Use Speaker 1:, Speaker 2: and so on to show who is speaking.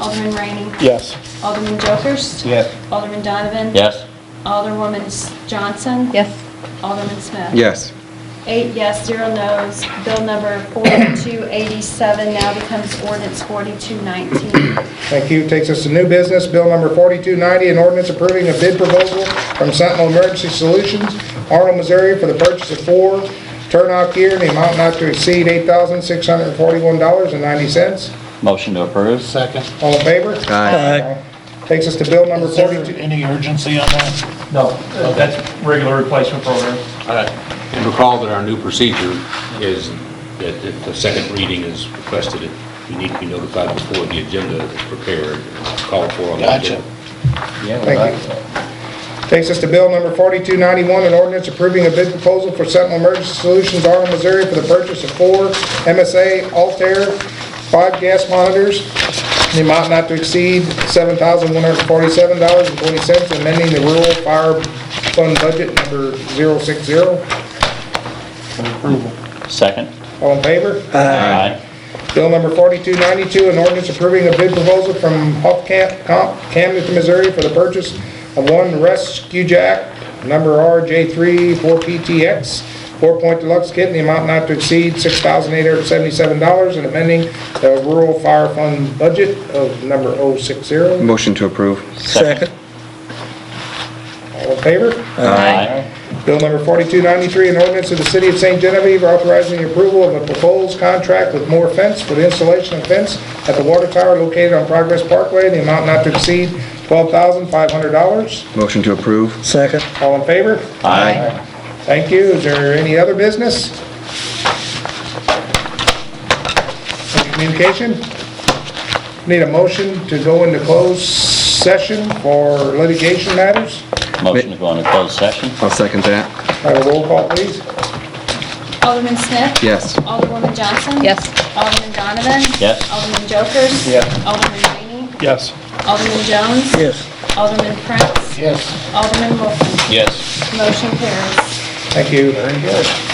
Speaker 1: Alderman Rainey.
Speaker 2: Yes.
Speaker 1: Alderman Jokers.
Speaker 2: Yes.
Speaker 1: Alderman Donovan.
Speaker 3: Yes.
Speaker 1: Alderwoman Johnson.
Speaker 4: Yes.
Speaker 1: Alderman Smith.
Speaker 5: Yes.
Speaker 1: Eight yes, zero no's. Bill number 4287 now becomes ordinance 4219.
Speaker 2: Thank you. Takes us to new business, Bill Number 4290, an ordinance approving a bid proposal from Sentinel Emergency Solutions, Arnold, Missouri, for the purchase of four turnout gear in the amount not to exceed $8,641.90.
Speaker 3: Motion to approve?
Speaker 6: Second.
Speaker 2: All in favor?
Speaker 5: Aye.
Speaker 2: Takes us to Bill Number
Speaker 6: Is there
Speaker 2: 42...
Speaker 6: any urgency on that?
Speaker 7: No, uh, that's regular replacement program.
Speaker 8: And recall that our new procedure is that if the second reading is requested, it- you need to be notified before the agenda is prepared, and called for on the
Speaker 6: Gotcha.
Speaker 8: agenda.
Speaker 2: Thank you. Takes us to bill number 4291, an ordinance approving a bid proposal for Sentinel Emergency Solutions, Arnold, Missouri, for the purchase of four MSA Altair five gas monitors, in the amount not to exceed $7,147.20, amending the rural fire fund budget number 060.
Speaker 3: Second?
Speaker 2: All in favor?
Speaker 3: Aye.
Speaker 2: Bill number 4292, an ordinance approving a bid proposal from Huff Camp, Comp, Camden, Missouri for the purchase of one rescue jack, number RJ3 4PTX, four-point deluxe kit in the amount not to exceed $6,877 and amending the rural fire fund budget of number 060. All
Speaker 5: Motion to approve.
Speaker 3: Second.
Speaker 2: in favor?
Speaker 3: Aye.
Speaker 2: Bill number 4293, an ordinance of the City of St. Genevieve authorizing the approval of a proposed contract with Moore Fence for the installation of fence at the water tower located on Progress Parkway, the amount not to exceed $12,500.
Speaker 5: Motion to approve.
Speaker 9: Second.
Speaker 2: All in favor?
Speaker 3: Aye.
Speaker 2: Thank you. Is there any other business? Any Communication? Need a motion to go into closed session for litigation matters?
Speaker 3: Motion to go into closed session?
Speaker 5: I'll second that.
Speaker 2: Have a roll call, please.
Speaker 1: Alderman Smith.
Speaker 5: Yes.
Speaker 1: Alderwoman Johnson.
Speaker 4: Yes.
Speaker 1: Alderman Donovan.
Speaker 3: Yes.
Speaker 1: Alderman Jokers.
Speaker 2: Yes.
Speaker 1: Alderman Rainey.
Speaker 7: Yes.
Speaker 1: Alderman Jones.
Speaker 9: Yes.
Speaker 1: Alderman Prince.
Speaker 6: Yes.
Speaker 1: Alderman Wolfen.
Speaker 3: Yes.
Speaker 1: Motion carries.
Speaker 2: Thank you. Very good.